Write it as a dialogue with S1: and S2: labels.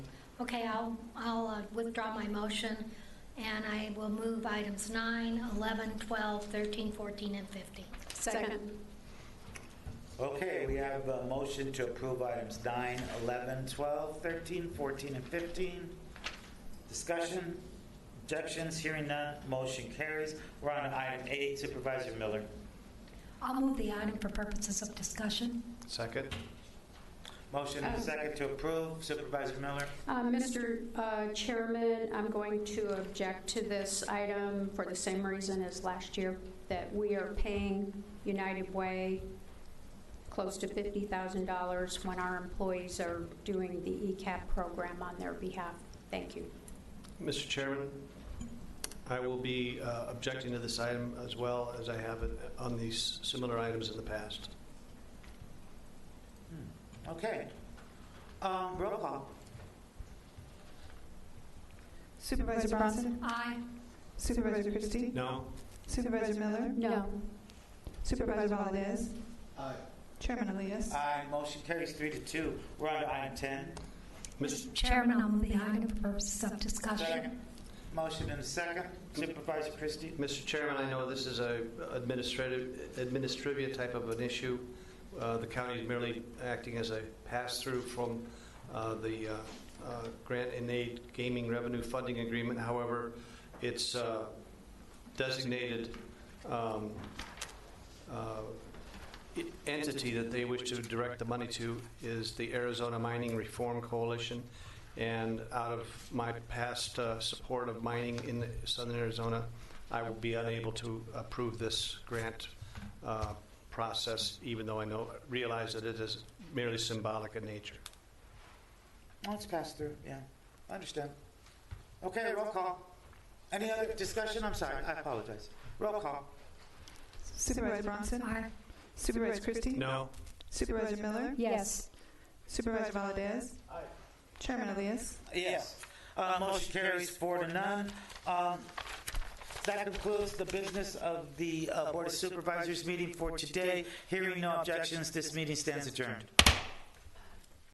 S1: Okay, I'll, I'll uh, withdraw my motion, and I will move items 9, 11, 12, 13, 14, and 15.
S2: Second.
S3: Okay, we have a motion to approve items 9, 11, 12, 13, 14, and 15. Discussion, objections, hearing none, motion carries. We're on to item 8, Supervisor Miller.
S1: I'll move the item for purposes of discussion.
S4: Second?
S3: Motion and second to approve, Supervisor Miller.
S2: Uh, Mr. uh, Chairman, I'm going to object to this item for the same reason as last year, that we are paying United Way close to $50,000 when our employees are doing the E ECAP program on their behalf. Thank you.
S4: Mr. Chairman, I will be uh, objecting to this item as well as I have it on these similar items in the past.
S3: Hmm, Okay. Um, Roll call.
S5: Supervisor Bronson?
S1: Aye.
S5: Supervisor Christie?
S4: No?
S5: Supervisor Miller?
S2: No.
S5: Supervisor Valdez? Chairman Elias?
S3: Aye, motion carries three to two. We're on to item 10.
S4: Mis-
S1: Chairman, I'll move the item for purposes of discussion.
S3: Second. Motion and second, Supervisor Christie.
S4: Mr. Chairman, I know this is a administrative, administrivia type of an issue. Uh, The county is merely acting as a pass-through from uh, the uh, uh, grant and aid gaming revenue funding agreement. However, it's uh, designated um, uh, entity that they wish to direct the money to is the Arizona Mining Reform Coalition. And out of my past uh, support of mining in southern Arizona, I will be unable to approve this grant uh, process, even though I know, realize that it is merely symbolic in nature.
S3: Oh, it's passed through, yeah. I understand. Okay, roll call. Any other discussion? I'm sorry, I apologize. Roll call.
S5: Supervisor Bronson?
S1: Aye.
S5: Supervisor Christie?
S4: No?
S5: Supervisor Miller?
S2: Yes.
S5: Supervisor Valdez? Chairman Elias?
S3: Yes. Uh, Motion carries four to none. Um, That concludes the business of the uh, Board of Supervisors meeting for today. Hearing no objections, this meeting stands adjourned.